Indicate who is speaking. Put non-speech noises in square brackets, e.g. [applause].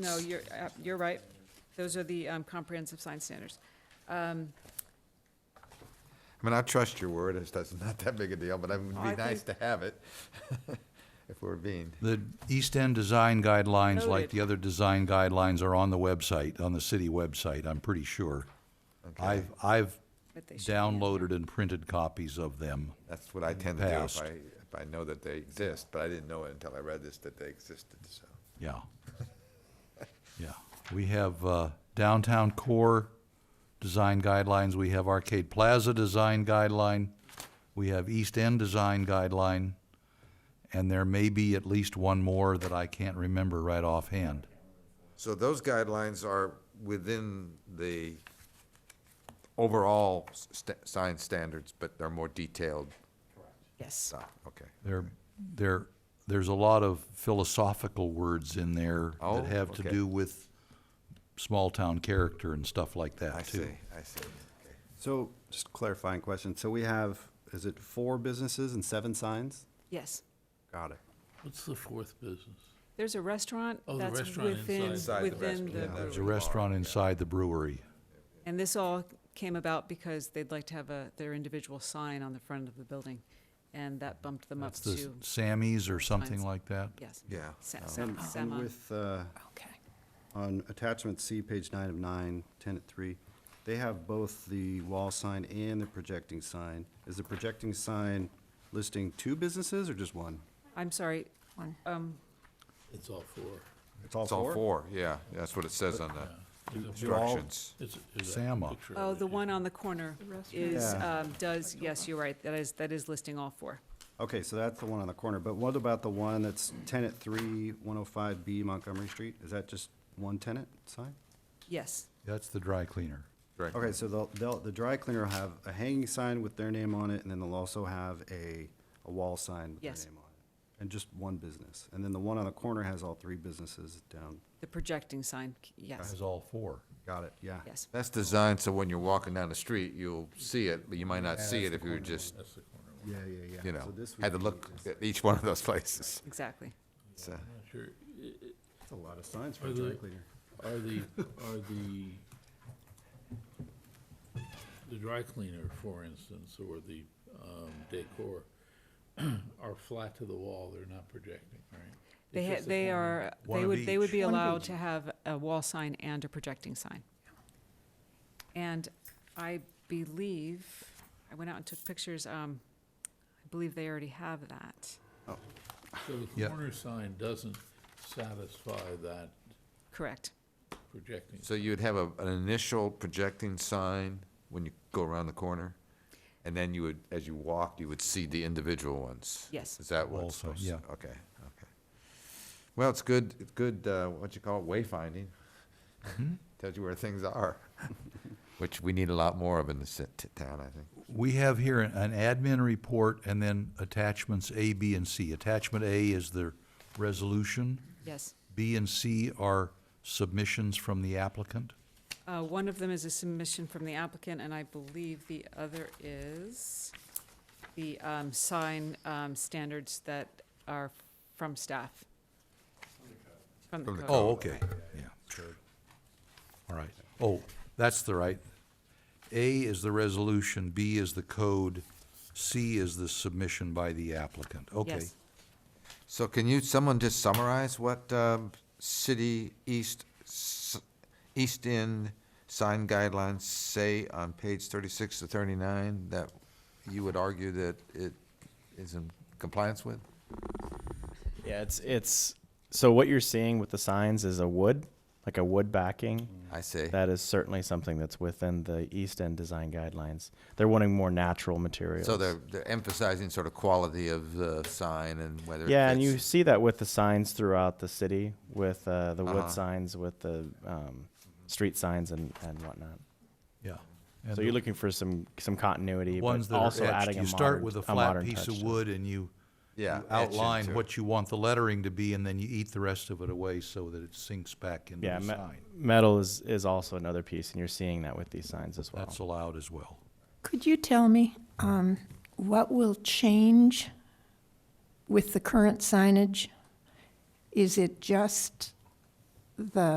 Speaker 1: No, you're, uh, you're right. Those are the um, comprehensive sign standards. Um,
Speaker 2: I mean, I trust your word, it's, that's [laughs] not that big a deal, but it would
Speaker 1: I
Speaker 2: be nice to have it, [laughs] if we're being.
Speaker 3: The East End design guidelines, like
Speaker 1: Noted.
Speaker 3: the other design guidelines, are on the website, on the city website, I'm pretty sure. I've, I've
Speaker 1: But they should be in
Speaker 3: downloaded and printed copies of them.
Speaker 2: That's what I tend to do if
Speaker 3: Past.
Speaker 2: I, if I know that they exist, but I didn't know it until I read this, that they existed, so.
Speaker 3: Yeah. Yeah. We have uh, downtown core design guidelines. We have Arcade Plaza design guideline. We have East End design guideline. And there may be at least one more that I can't remember right offhand.
Speaker 2: So those guidelines are within the overall s- st- sign standards, but they're more detailed
Speaker 1: Yes,
Speaker 2: stuff, okay.
Speaker 3: There, there, there's a lot of philosophical words in there
Speaker 2: Oh,
Speaker 3: that have to
Speaker 2: okay.
Speaker 3: do with small-town character and stuff like
Speaker 2: I
Speaker 3: that,
Speaker 2: see,
Speaker 3: too.
Speaker 2: I see, okay.
Speaker 4: So, just clarifying question, so we have, is it four businesses and seven signs?
Speaker 1: yes.
Speaker 4: Got it.
Speaker 5: What's the fourth business?
Speaker 1: There's a restaurant
Speaker 5: Oh, the
Speaker 1: that's
Speaker 5: restaurant
Speaker 1: within,
Speaker 2: inside. Inside the
Speaker 1: within
Speaker 2: restaurant,
Speaker 1: the
Speaker 2: yeah.
Speaker 3: There's a
Speaker 1: brewery.
Speaker 3: restaurant inside the brewery.
Speaker 1: And this all came about because they'd like to have a, their individual sign on the front of the building. And that bumped them up
Speaker 3: It's the
Speaker 1: to,
Speaker 3: Sammy's or something
Speaker 1: Signs.
Speaker 3: like that.
Speaker 1: yes.
Speaker 2: Yeah.
Speaker 1: Sa-
Speaker 2: Oh.
Speaker 1: sa-
Speaker 4: And and
Speaker 1: sama.
Speaker 4: with, uh,
Speaker 1: Okay.
Speaker 4: on attachment C, page nine of nine, ten at three, they have both the wall sign and the projecting sign. Is the projecting sign listing two businesses or just one?
Speaker 1: I'm sorry, um,
Speaker 5: It's all four.
Speaker 2: It's all four, yeah, that's what it says on the
Speaker 5: Is it four?
Speaker 2: instructions.
Speaker 5: It's- is that
Speaker 3: Sama.
Speaker 5: picture of
Speaker 1: oh,
Speaker 5: it?
Speaker 1: the one on the corner is,
Speaker 4: Yeah.
Speaker 1: um, does, yes, you're right, that is, that is listing all four.
Speaker 4: Okay, so that's the one on the corner, but what about the one that's ten at three, one oh five B Montgomery Street? Is that just one tenant sign?
Speaker 1: Yes,
Speaker 3: That's the dry cleaner.
Speaker 2: Right.
Speaker 4: Okay, so they'll, they'll, the dry cleaner will have a hanging sign with their name on it, and then they'll also have a, a wall sign with their
Speaker 1: Yes.
Speaker 4: name on it. And just one business. And then the one on the corner has all three businesses down.
Speaker 1: the projecting sign, yes,
Speaker 3: Has all four.
Speaker 4: Got it, yeah.
Speaker 1: yes.
Speaker 2: That's designed so when you're walking down the street, you'll see it, but you might not see it if you were just,
Speaker 4: Yeah, yeah, yeah.
Speaker 2: you know,
Speaker 4: So this would
Speaker 2: had to
Speaker 4: be-
Speaker 2: look at each one of those places.
Speaker 1: Exactly.
Speaker 2: It's, uh,
Speaker 5: I'm not sure. I- i-
Speaker 4: That's a lot of signs for
Speaker 5: Are
Speaker 4: a dry
Speaker 5: there-
Speaker 4: cleaner.
Speaker 5: Are the, are the, the dry cleaner, for instance, or the um, decor [clears throat] are flat to the wall, they're not projecting, right?
Speaker 1: They,
Speaker 5: It's
Speaker 1: ha-
Speaker 5: just a
Speaker 1: they
Speaker 5: corner.
Speaker 1: are,
Speaker 3: One
Speaker 1: they
Speaker 3: of
Speaker 1: would, they would be
Speaker 3: each. One of
Speaker 1: allowed to have a wall sign and a projecting sign. And I believe, I went out and took pictures, um, I believe they already have that.
Speaker 5: So the
Speaker 3: Yeah.
Speaker 5: corner sign doesn't satisfy that
Speaker 1: Correct.
Speaker 5: projecting.
Speaker 2: So you'd have a, an initial projecting sign when you go around the corner, and then you would, as you walk, you would see the individual ones?
Speaker 1: Yes.
Speaker 2: Is that what it's
Speaker 3: Also,
Speaker 2: supposed to?
Speaker 3: yeah.
Speaker 2: Okay, okay. Well, it's good, it's good, uh, what you call it, wayfinding.
Speaker 4: Mm-hmm.
Speaker 2: [laughs] Tells you where things are, [laughs] which we need a lot more of in the ci- t- town, I think.
Speaker 3: We have here an an admin report and then attachments A, B, and C. Attachment A is the resolution.
Speaker 1: Yes.
Speaker 3: B and C are submissions from the applicant.
Speaker 1: Uh, one of them is a submission from the applicant, and I believe the other is the, um, sign, um, standards that are from staff. From the
Speaker 2: From the
Speaker 1: code.
Speaker 3: Oh, okay, yeah. Sure. All right. Oh, that's the right. A is the resolution, B is the code, C is the submission by the applicant. Okay.
Speaker 1: Yes.
Speaker 2: So can you, someone just summarize what, um, city east, s- east end sign guidelines say on page thirty-six to thirty-nine that you would argue that it is in compliance with?
Speaker 6: Yeah, it's it's so what you're seeing with the signs is a wood, like a wood backing.
Speaker 2: I see.
Speaker 6: That is certainly something that's within the East End design guidelines. They're wanting more natural materials.
Speaker 2: So they're, they're emphasizing sort of quality of the sign and whether. it
Speaker 6: yeah, and you
Speaker 2: fits.
Speaker 6: see that with the signs throughout the city, with uh, the
Speaker 2: Uh-huh. Mm-hmm.
Speaker 6: wood signs, with the um, street signs, and, and whatnot.
Speaker 3: Yeah.
Speaker 6: so you're looking for some some continuity,
Speaker 3: Ones
Speaker 6: but
Speaker 3: that are
Speaker 6: also
Speaker 3: etched,
Speaker 6: adding a
Speaker 3: you start
Speaker 6: modern-
Speaker 3: with a flat
Speaker 6: modern
Speaker 3: piece
Speaker 6: touch
Speaker 3: of
Speaker 6: to it.
Speaker 3: wood and you
Speaker 2: Yeah,
Speaker 3: you
Speaker 2: etch
Speaker 3: outline
Speaker 2: into it.
Speaker 3: what you want the lettering to be and then you eat the rest of it away so that it sinks back into
Speaker 6: Yeah,
Speaker 3: the
Speaker 6: me-
Speaker 3: sign.
Speaker 6: metal is is also another piece, and you're seeing that with these signs as well.
Speaker 3: That's allowed as well.
Speaker 7: Could you tell me um, what will change with the current signage? Is it just the